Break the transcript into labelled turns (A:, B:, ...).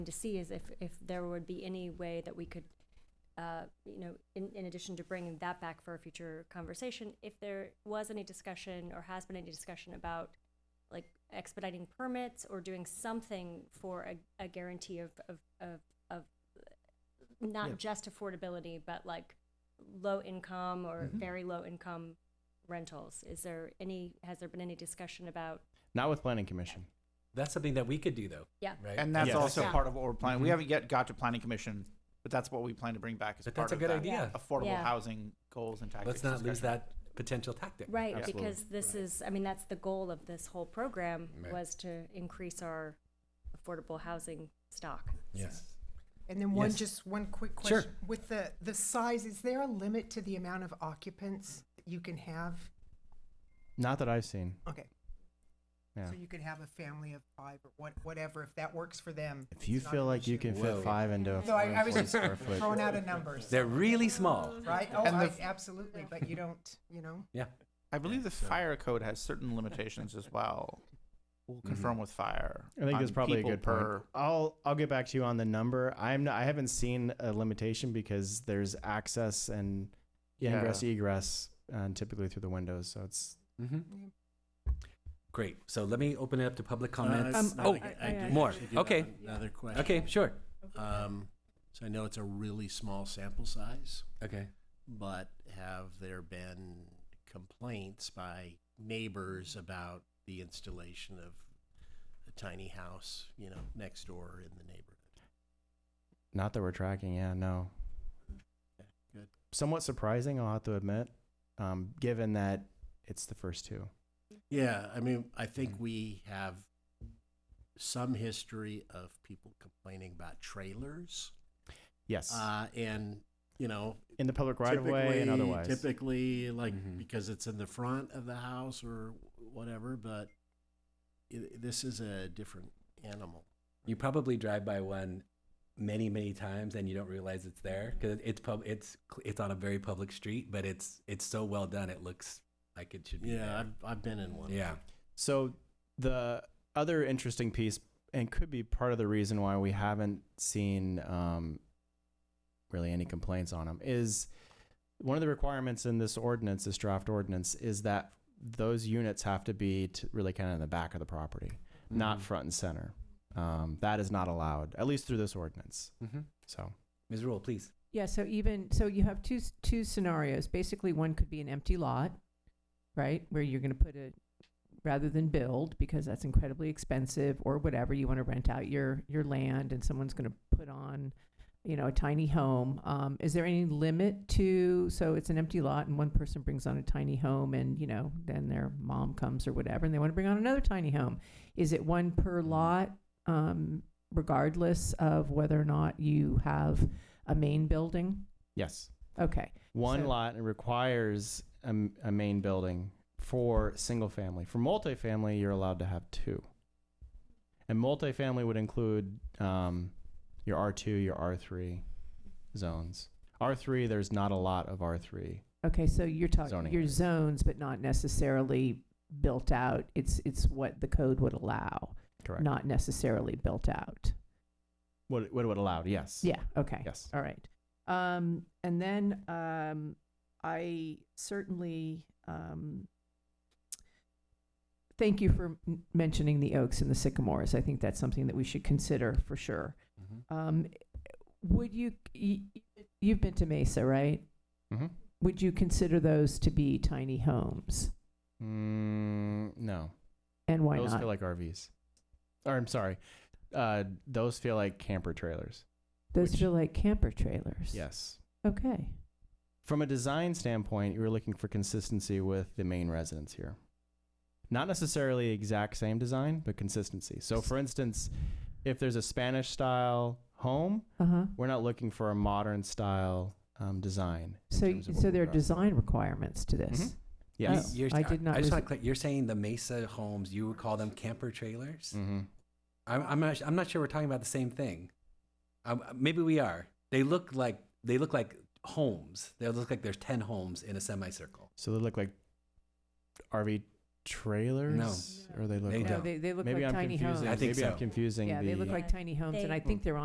A: to see is if, if there would be any way that we could, uh, you know, in, in addition to bringing that back for a future conversation, if there was any discussion or has been any discussion about like expediting permits or doing something for a, a guarantee of, of, of, of not
B: Yeah.
A: just affordability, but like low income or very low income rentals. Is there any, has there been any discussion about?
C: Not with planning commission.
B: That's something that we could do though,
A: Yeah.
B: right?
D: And that's
C: Yes.
D: also
A: Yeah. Mm-hmm.
D: part of what we're planning. We
B: Mhm.
D: haven't yet got to planning commission, but that's what we plan to bring back as
B: But
D: part
B: that's a
D: of
B: good
D: that
B: idea.
D: affordable
A: Yeah.
D: housing goals and tactics.
B: Let's not lose
D: discussion.
B: that potential tactic.
A: Right,
C: Absolutely.
A: because this is, I mean, that's the goal of this whole program
B: Right.
A: was to increase our affordable housing stock.
B: Yes.
E: And then one,
B: Yes.
E: just one quick
B: Sure.
E: question. With the, the size, is there a limit to the amount of occupants that you can have?
C: Not that I've seen.
E: Okay.
C: Yeah.
E: So you could have a family of five or what, whatever, if that works for them.
C: If you
E: It's not
C: feel
E: an
C: like you
E: issue.
C: can
B: Whoa.
C: fit five into a
E: No, I, I was
C: 440
E: just
C: square foot.
E: throwing out a number,
B: They're really small.
E: right? Oh,
D: And the
E: I,
D: f-
E: absolutely, but you don't, you know?
B: Yeah.
D: I believe the fire code has certain limitations as well.
B: Mm-hmm.
D: We'll confirm with fire.
C: I think
D: on
C: that's probably a
D: people
C: good
D: per-
C: point. I'll I'll get back to you on the number. I'm not, I haven't seen a limitation because there's access and
D: Yeah.
C: ingress egress uh, typically through the windows, so it's
B: Mm-hmm. Great. So let me open it up to public comment.
F: Uh,
A: Um,
F: no,
B: oh,
F: I-
A: I-
F: I
A: I-
F: do
B: more.
F: actually do have
B: Okay.
F: Another question.
B: okay, sure.
F: Um, so I know it's a really small sample size,
B: Okay.
F: but have there been complaints by neighbors about the installation of a tiny house, you know, next door in the neighborhood?
C: not that we're tracking. Yeah, no.
F: Good.
C: Somewhat surprising, I'll have to admit, um, given that it's the first two.
F: Yeah, I mean, I think
C: Mhm.
F: we have some history of people complaining about trailers,
C: Yes,
F: uh, and you know,
C: in the public right of way and
F: Typically-
C: otherwise. Mm-hmm.
F: Typically, like
B: Mhm.
F: because it's in the front of the house or whatever, but i this is a different animal.
B: You probably drive by one many, many times and you don't realize it's there because it's pub. It's cl- it's on a very public street, but it's it's so well done. It looks like it should be.
F: Yeah, I've, I've been Mm-hmm. in
B: there.
F: one.
B: Yeah.
C: So the other interesting piece, and could be part of the reason why we haven't seen um, really any complaints on them, is one of the requirements in this ordinance, this draft ordinance, is that those units have to be t- really kind of in the back of the property,
B: Mm-hmm.
C: not front and center. Um, that is not allowed, at least through this ordinance.
B: Mm-hmm.
C: So
B: Ms. Rule, please.
G: Yeah, so even, so you have two, s- two scenarios. Basically, one could be an empty lot, right, where you're gonna put a, rather than build, because that's incredibly expensive, or whatever, you wanna rent out your, your land, and someone's gonna put on, you know, a tiny home. Um, is there any limit to, so it's an empty lot, and one person brings on a tiny home, and, you know, then their mom comes or whatever, and they wanna bring on another tiny home. Is it one per lot, um, regardless of whether or not you have a main building?
C: yes,
G: Okay.
C: one
G: So-
C: lot requires a, m- a main building for single family. For multifamily, you're allowed to have two. And multifamily would include um, your R2, your R3 zones. R3, there's not a lot of R3.
G: Okay, so you're
C: Zoning
G: talking, your
C: areas.
G: zones, but not necessarily built out. It's, it's what the code would allow,
C: Correct.
G: not necessarily built out.
C: What, it- what it would allow, yes.
G: Yeah, okay.
C: Yes.
G: All right. Um, and then, um, I certainly, um, thank you for m- mentioning the oaks and the sycamores. I think that's something that we should consider for sure. Um, would you, y- y- you've been to Mesa, right?
C: Mm-hmm.
G: would you consider those to be tiny homes?
C: Mm-hmm. Mm, no.
G: And why
C: those
G: not?
C: feel like RVs. Or I'm sorry. Uh, those feel like camper trailers.
G: those
C: which-
G: feel like camper trailers.
C: Yes.
G: Okay.
C: from a design standpoint, you were looking for consistency with the main residence here. Not necessarily exact same design, but consistency. So, for instance, if there's a Spanish style home,
G: Uh huh.
C: we're not looking for a modern style um, design. in
G: So,
C: terms of what
G: so
C: we
G: there are
C: got.
G: design requirements to this.
C: Mhm. Yes.
G: Oh. I did not
B: I just
G: res-
B: want to clear, you're saying the Mesa homes. You would call them camper trailers.
C: Mm-hmm.
B: I'm I'm not, I'm not sure we're talking about the same thing. Um, maybe we are. They look like they look like homes. They look like there's ten homes in a semicircle.
C: So they look like RV trailers? Or they look
B: They
C: like
B: don't.
G: No, they, they look
C: maybe
G: like
C: I'm
G: tiny
C: confusing.
G: homes.
B: I think
C: maybe
B: so.
C: I'm confusing
G: Yeah,
C: the
G: they look like tiny homes, and I think they're on.